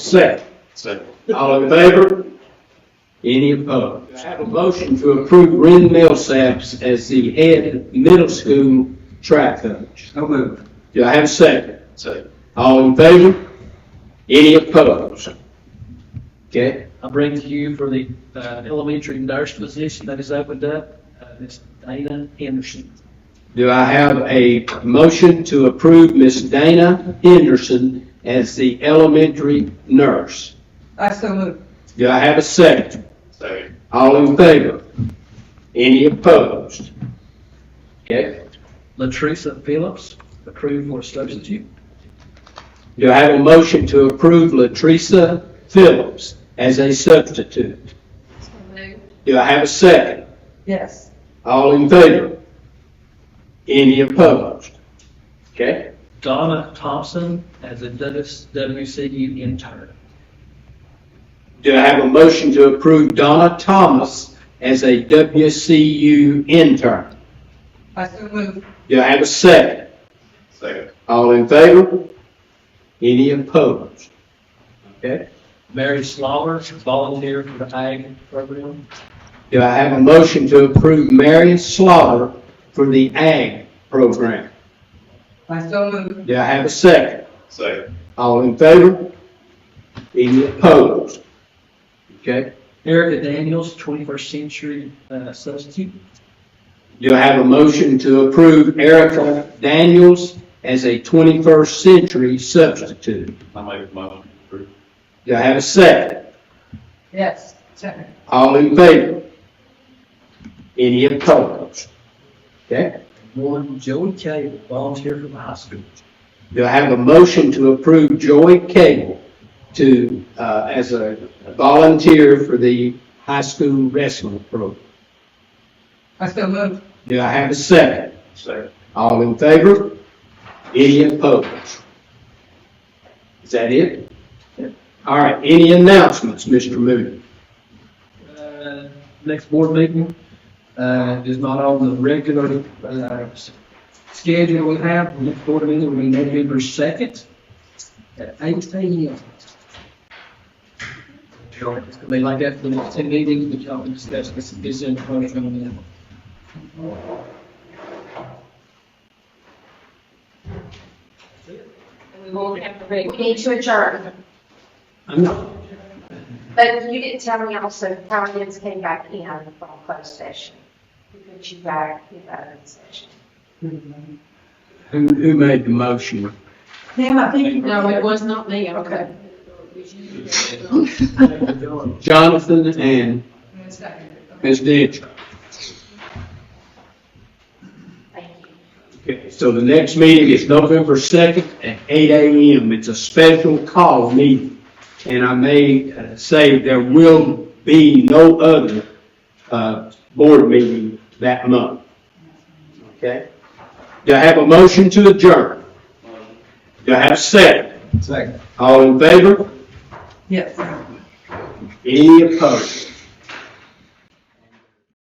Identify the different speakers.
Speaker 1: Second.
Speaker 2: Second.
Speaker 1: All in favor? Any opposed? I have a motion to approve Ren Millsaps as the head middle school track coach.
Speaker 3: So moved.
Speaker 1: Do I have a second?
Speaker 2: Second.
Speaker 1: All in favor? Any opposed? Okay,
Speaker 4: I bring to you for the uh, elementary nurse position that is opened up, uh, Ms. Dana Henderson.
Speaker 1: do I have a motion to approve Miss Dana Henderson as the elementary nurse?
Speaker 3: I so moved.
Speaker 1: Do I have a second?
Speaker 2: Second.
Speaker 1: All in favor? Any opposed? Okay,
Speaker 4: Latresa Phillips, approved for substitute.
Speaker 1: do I have a motion to approve Latresa Phillips as a substitute?
Speaker 5: So moved.
Speaker 1: Do I have a second?
Speaker 3: Yes.
Speaker 1: All in favor? Any opposed? Okay,
Speaker 4: Donna Thompson as a Douglas WCU intern.
Speaker 1: do I have a motion to approve Donna Thomas as a WCU intern?
Speaker 3: I so moved.
Speaker 1: Do I have a second?
Speaker 2: Second.
Speaker 1: All in favor? Any opposed? Okay.
Speaker 4: Mary Slaughter, volunteer for the ag program.
Speaker 1: Do I have a motion to approve Marion Slaughter for the ag program?
Speaker 3: I so moved.
Speaker 1: Do I have a second?
Speaker 2: Second.
Speaker 1: All in favor? Any opposed? Okay.
Speaker 4: Erica Daniels, 21st century uh, substitute.
Speaker 1: Do I have a motion to approve Erica Daniels as a 21st century substitute?
Speaker 2: I make my motion to approve.
Speaker 1: Do I have a second?
Speaker 3: Yes. Second.
Speaker 1: All in favor? Any opposed? Okay.
Speaker 4: One, Joey Cable, volunteer for the high school.
Speaker 1: Do I have a motion to approve Joy Cable to, uh, as a volunteer for the high school wrestling program?
Speaker 3: I so moved.
Speaker 1: Do I have a second?
Speaker 2: Second.
Speaker 1: All in favor? Any opposed? Is that it? All right, any announcements, Mr. Moody?
Speaker 4: Uh, Next board meeting uh, is not on the regular uh, s- schedule we have. The next board meeting will be November 2nd at 8 a.m. It's gonna be like that for the next two meetings, which I'll discuss this this in front of you.
Speaker 5: And we won't have to break. We need to adjourn.
Speaker 1: I'm not,
Speaker 5: But you didn't tell me also how Higgins came back in from closed session. Who put you back in that session?
Speaker 1: who, who made the motion?
Speaker 3: Pam, I think you
Speaker 6: No, it was not me, okay.
Speaker 1: Jonathan and Ms. Ditch.
Speaker 5: Thank you.
Speaker 1: Okay, so the next meeting is November 2nd at 8 a.m. It's a special call meeting. And I may uh, say there will be no other uh, board meeting that month. Okay? Do I have a motion to adjourn? Do I have a second?
Speaker 3: Second.
Speaker 1: All in favor?
Speaker 3: Yes.
Speaker 1: Any opposed?